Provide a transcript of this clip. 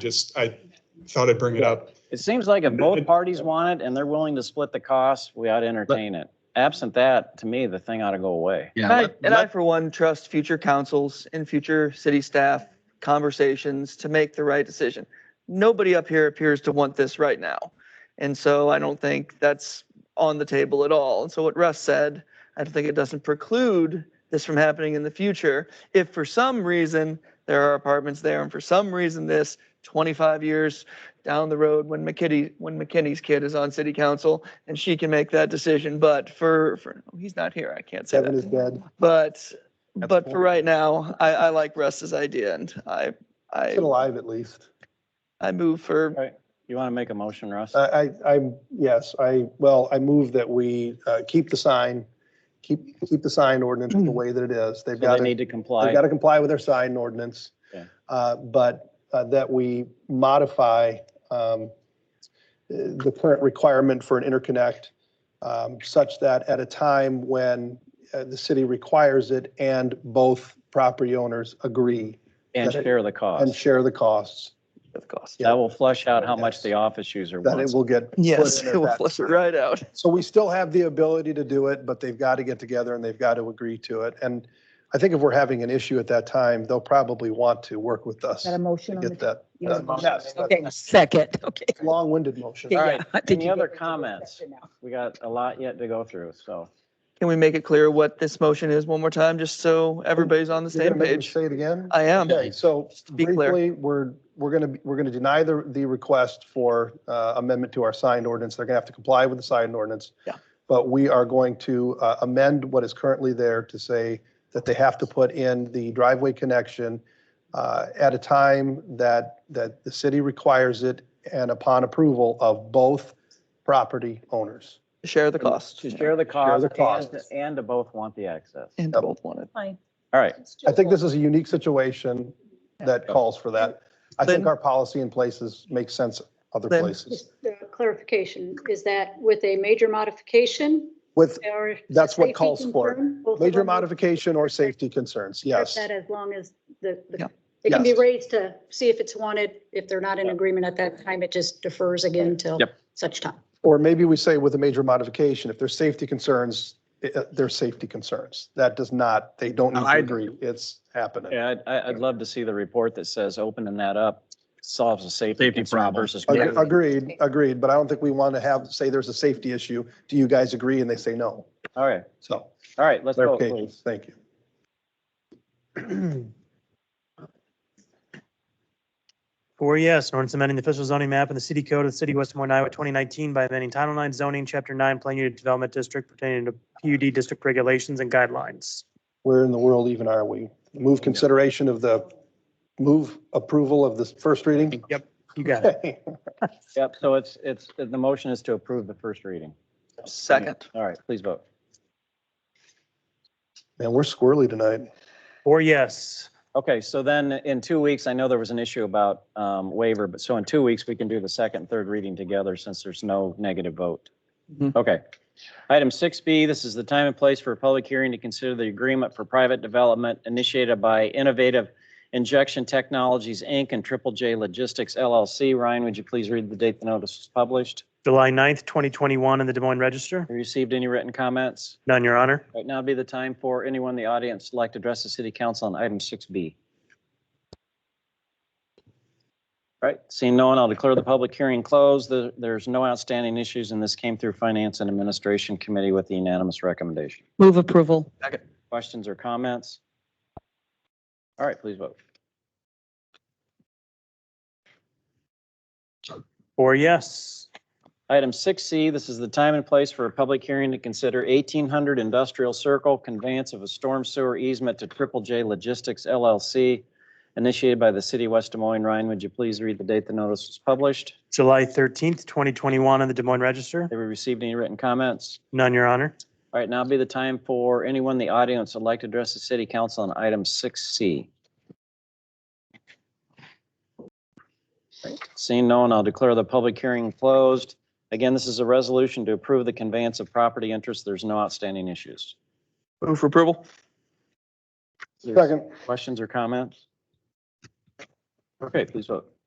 Just, I thought I'd bring it up. It seems like if both parties want it and they're willing to split the cost, we ought to entertain it. Absent that, to me, the thing ought to go away. Yeah, And I, let- and I, let- for one, trust future councils and future city staff conversations to make the right decision. Nobody up here appears to want this right now. And so I don't think that's on the table at all. And so what Russ said, I don't think it doesn't preclude this from happening in the future. If for some reason there are apartments there and for some reason this 25 years down the road when McKitty, when McKinney's kid is on city council and she can make that decision. But for, for, oh, he's not here. I can't say that. Kevin is dead. But, That's but for horrible. right now, I, I like Russ's idea and I, I, He's alive at least. I move for, You want to make a motion, Russ? I, I, I'm, yes, I, well, I move that we uh, keep the sign, keep, keep the sign ordinance the way that it is. They've So got they need to, to they've comply. got to comply with their sign ordinance. Yeah. Uh, But uh, that we modify um, the current requirement for an interconnect um, such that at a time when uh, the city requires it and both property owners agree And share the and cost. share the costs, of course. That will flush out how Yes. much the office user that it wants. will get. put Yes, in at it will that flush it time. right out. So we still have the ability to do it, but they've got to get together and they've got to agree to it. And I think if we're having an issue at that time, they'll probably want to work with us Got a to motion on get the. that. you want that- a motion? yes, that- Okay, second, okay. Long-winded motion. All right, Yeah. Did any you other get- comments? We got a lot yet to go through, so. Can we make it clear what this motion is one more time, just so everybody's on the You're same gonna make me page? Say it again? I am. Okay, so Just to be clear. briefly, we're, we're going to, we're going to deny the, the request for uh, amendment to our signed ordinance. They're going to have to comply with the signed ordinance. Yeah. But we are going to uh, amend what is currently there to say that they have to put in the driveway connection uh, at a time that, that the city requires it and upon approval of both property owners. Share the cost. To share the cost Share the and, costs. and to both want the access. And both want it. Fine. All right, I think this is a unique situation that calls for that. I think Lynn? our policy in places makes sense other Lynn? places. Just the clarification, is that with a major modification With, or? That's what safety calls for it. concern? Both of Major them would modification or safety concerns, accept yes. That as long as the, the- Yeah. it can be Yes. raised to see if it's wanted. If they're not in agreement at that time, it just defers again till Yep. such time. Or maybe we say with a major modification, if there's safety concerns, i- uh, there's safety concerns. That does not, they don't need to I- agree. It's happening. yeah, I'd- I, I'd love to see the report that says opening that up solves a safety Safety concern problem. versus. Ag- Agreed, agreed, but I don't think we want to have, say there's a safety issue. Do you guys agree? And they say no. All right, So, all right, let's vote, clarification, please. thank you. Four yes, an ordinance amending the official zoning map in the city code of the city of West Des Moines, Iowa, 2019 by amending Title 9 zoning, Chapter 9, Plan Unit Development District pertaining to PUD district regulations and guidelines. Where in the world even are we? Move consideration of the, move approval of this first reading? Yep. You got it. Okay. Yep, so it's, it's, the motion is to approve the first reading. Second. All right, please vote. Man, we're squirrely tonight. Four yes. Okay, so then in two weeks, I know there was an issue about um, waiver, but so in two weeks, we can do the second, and third reading together since there's no negative vote. Mhm. Okay. Item 6B, this is the time and place for a public hearing to consider the agreement for private development initiated by Innovative Injection Technologies, Inc. and Triple J Logistics LLC. Ryan, would you please read the date the notice was published? July 9th, 2021 in the Des Moines Register. Have you received any written comments? None, Your Honor. Right now would be the time for anyone in the audience who'd like to address the city council on item 6B. All right, seeing no one, I'll declare the public hearing closed. There- There's no outstanding issues, and this came through Finance and Administration Committee with the unanimous recommendation. Move approval. Questions or comments? All right, please vote. Four yes. Item 6C, this is the time and place for a public hearing to consider 1800 Industrial Circle conveyance of a storm sewer easement to Triple J Logistics LLC initiated by the city of West Des Moines. Ryan, would you please read the date the notice was published? July 13th, 2021 in the Des Moines Register. Have we received any written comments? None, Your Honor. All right, now be the time for anyone in the audience that'd like to address the city council on item 6C. Seeing no one, I'll declare the public hearing closed. Again, this is a resolution to approve the conveyance of property interest. There's no outstanding issues. Move for approval? Second. Questions or comments? Okay, please vote.